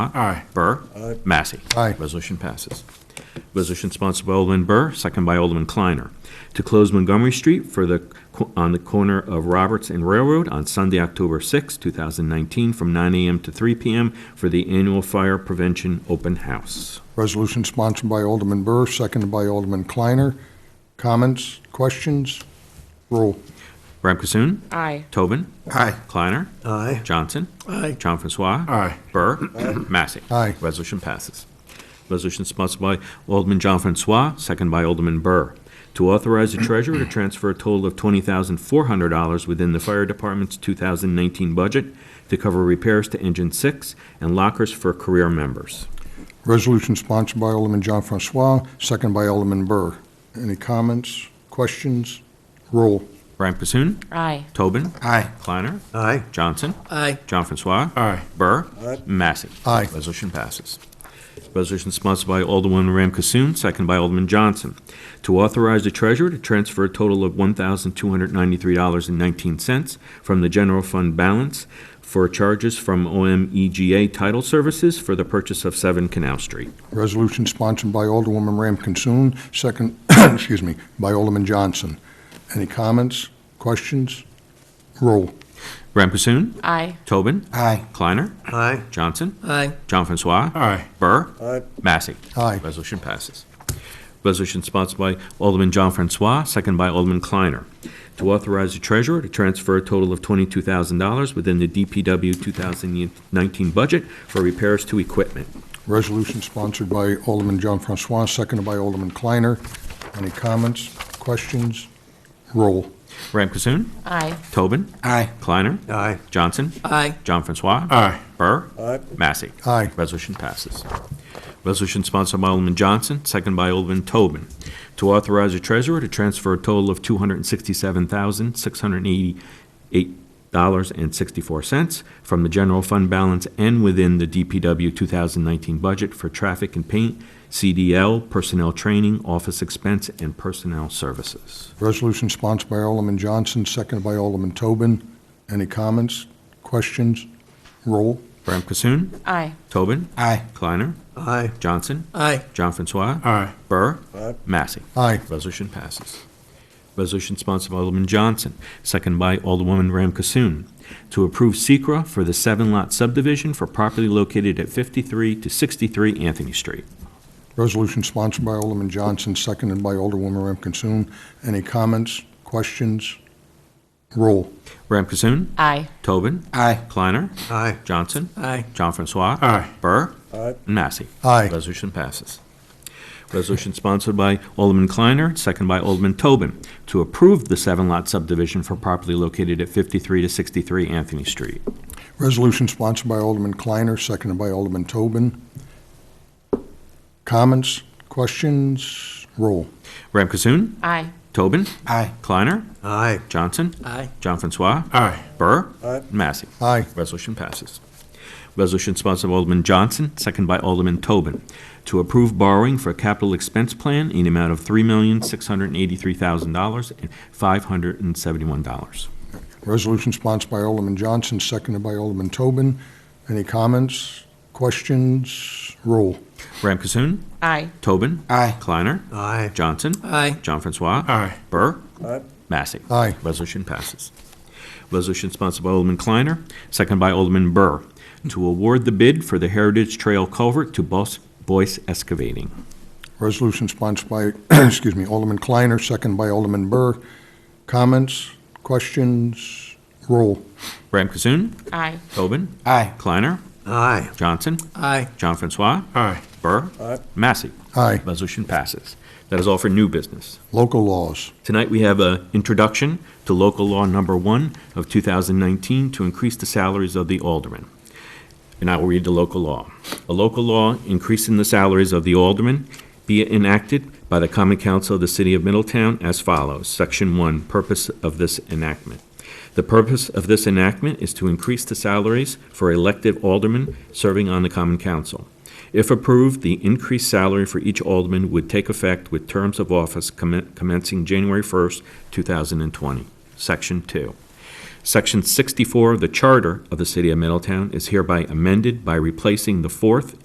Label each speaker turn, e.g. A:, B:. A: Aye.
B: Burr. Massey.
C: Aye.
B: Resolution passes. Resolution sponsored by Alderman Burr, second by Alderman Kleiner, to close Montgomery Street for the, on the corner of Roberts and Railroad on Sunday, October 6, 2019, from 9 a.m. to 3 p.m. for the annual fire prevention open house.
C: Resolution sponsored by Alderman Burr, seconded by Alderman Kleiner. Comments, questions? Roll.
B: Rab Kassoon.
D: Aye.
B: Tobin.
A: Aye.
B: Kleiner.
A: Aye.
B: Johnson.
A: Aye.
B: John Francois.
A: Aye.
B: Burr. Massey.
C: Aye.
B: Resolution passes. Resolution sponsored by Alderman John Francois, second by Alderman Burr, to authorize the treasurer to transfer a total of $20,400 within the fire department's 2019 budget to cover repairs to engine six and lockers for career members.
C: Resolution sponsored by Alderman John Francois, seconded by Alderman Burr. Any comments, questions? Roll.
B: Brian Passoon,
D: Aye.
B: Tobin,
A: Aye.
B: Kleiner,
A: Aye.
B: Johnson,
A: Aye.
B: John Francois.
A: Aye.
B: Burr. Massey.
C: Aye.
B: Resolution passes. Resolution sponsored by Alderman Ram Kasoon, second by Alderman Johnson, to authorize the treasurer to transfer a total of $1,293.19 from the general fund balance for charges from OMEGA Title Services for the purchase of 7 Canal Street.
C: Resolution sponsored by Alderwoman Ram Kinsoon, second, excuse me, by Alderman Johnson. Any comments, questions? Roll.
B: Ram Kasoon,
D: Aye.
B: Tobin,
A: Aye.
B: Kleiner,
A: Aye.
B: Johnson,
A: Aye.
B: John Francois,
A: Aye.
B: Burr,
A: Aye.
B: Massey.
C: Aye.
B: Resolution passes. Resolution sponsored by Alderman John Francois, second by Alderman Kleiner, to authorize the treasurer to transfer a total of twenty-two thousand dollars within the DPW two thousand nineteen budget for repairs to equipment.
C: Resolution sponsored by Alderman John Francois, seconded by Alderman Kleiner. Any comments, questions? Roll.
B: Ram Kasoon,
D: Aye.
B: Tobin,
A: Aye.
B: Kleiner,
A: Aye.
B: Johnson,
D: Aye.
B: John Francois,
A: Aye.
B: Burr,
A: Aye.
B: Massey.
C: Aye.
B: Resolution passes. Resolution sponsored by Alderman Johnson, second by Alderman Tobin, to authorize the treasurer to transfer a total of two hundred and sixty-seven thousand, six hundred and eighty-eight dollars and sixty-four cents from the general fund balance and within the DPW two thousand nineteen budget for traffic and paint, CDL, personnel training, office expense, and personnel services.
C: Resolution sponsored by Alderman Johnson, seconded by Alderman Tobin. Any comments, questions? Roll.
B: Bram Kasoon,
D: Aye.
B: Tobin,
A: Aye.
B: Kleiner,
A: Aye.
B: Johnson,
A: Aye.
B: John Francois,
A: Aye.
B: Burr,
A: Aye.
B: Massey.
C: Aye.
B: Resolution passes. Resolution sponsored by Alderman Johnson, second by Alderwoman Ram Kasoon, to approve Secra for the seven-lot subdivision for property located at 53 to 63 Anthony Street.
C: Resolution sponsored by Alderman Johnson, seconded by Alderwoman Ram Kinsoon. Any comments, questions? Roll.
B: Ram Kasoon,
D: Aye.
B: Tobin,
A: Aye.
B: Kleiner,
A: Aye.
B: Johnson,
A: Aye.
B: John Francois.
A: Aye.
B: Burr.
A: Aye.
B: And Massey.
C: Aye.
B: Resolution passes. Resolution sponsored by Alderman Kleiner, second by Alderman Tobin, to approve the seven-lot subdivision for property located at 53 to 63 Anthony Street.
C: Resolution sponsored by Alderman Kleiner, seconded by Alderman Tobin. Comments, questions? Roll.
B: Ram Kasoon,
D: Aye.
B: Tobin,
A: Aye.
B: Kleiner,
A: Aye.
B: Johnson,
A: Aye.
B: John Francois,
A: Aye.
B: Burr,
A: Aye.
B: and Massey.
C: Aye.
B: Resolution passes. Resolution sponsored by Alderman Johnson, second by Alderman Tobin, to approve borrowing for a capital expense plan in the amount of three million, six hundred and eighty-three thousand dollars and five hundred and seventy-one dollars.
C: Resolution sponsored by Alderman Johnson, seconded by Alderman Tobin. Any comments, questions? Roll.
B: Ram Kasoon,
D: Aye.
B: Tobin,
A: Aye.
B: Kleiner,
A: Aye.
B: Johnson,
A: Aye.
B: John Francois,
A: Aye.
B: Burr,
A: Aye.
B: Massey.
C: Aye.
B: Resolution passes. Resolution sponsored by Alderman Kleiner, second by Alderman Burr, to award the bid for the Heritage Trail culvert to Bos- Boyce Excavating.
C: Resolution sponsored by, excuse me, Alderman Kleiner, seconded by Alderman Burr. Comments, questions? Roll.
B: Ram Kasoon,
D: Aye.
B: Tobin,
A: Aye.
B: Kleiner,
A: Aye.
B: Johnson,
A: Aye.
B: John Francois,
A: Aye.
B: Burr, Massey.
C: Aye.
B: Resolution passes. That is all for new business.
C: Local laws.
B: Tonight, we have an introduction to local law number one of 2019 to increase the salaries of the aldermen. And I will read the local law. A local law increasing the salaries of the aldermen be enacted by the Common Council of the City of Middletown as follows. Section one, purpose of this enactment. The purpose of this enactment is to increase the salaries for elective aldermen serving on the Common Council. If approved, the increased salary for each alderman would take effect with terms of office commen- commencing January 1st, 2020. Section 2. Section 64 of the Charter of the City of Middletown is hereby amended by replacing the fourth